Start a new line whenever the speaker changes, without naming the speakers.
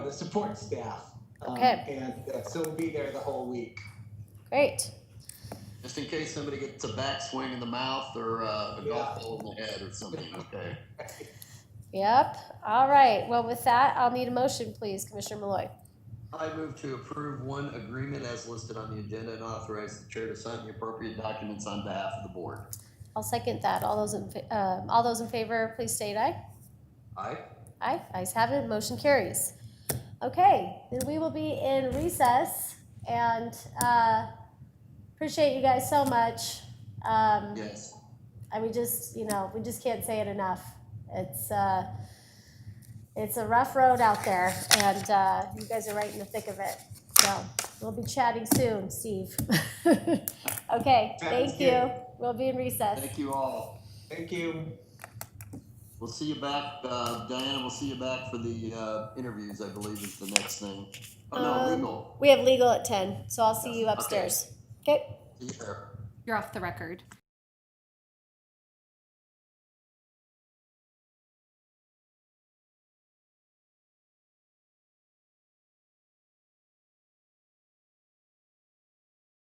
the support staff. um,
Okay.
And uh, so we'll be there the whole week.
Great.
Just in case somebody gets a backswing in the mouth or uh, a golf ball in the head or something, okay?
Yep. All right. Well, with that, I'll need a motion, please, Commissioner Malloy.
I move to approve one agreement as listed on the agenda and authorize the chair to sign the appropriate documents on behalf of the board.
I'll second that. All those in, fa- um, all those in favor, please state aye.
Aye?
Aye, ayes have it, motion carries. Okay, then we will be in recess and uh, appreciate you guys so much. Um,
Yes.
And we just, you know, we just can't say it enough. It's, uh, it's a rough road out there and uh, you guys are right in the thick of it. So we'll be chatting soon, Steve. Okay,
Sounds
thank you. We'll be in recess.
Thank you all.
Thank you.
We'll see you back, uh, Diana, we'll see you back for the uh, interviews, I believe is the next thing. Oh, no,
Um,
legal.
We have legal at ten, so I'll see you upstairs. Okay?
See you there.
You're off the record.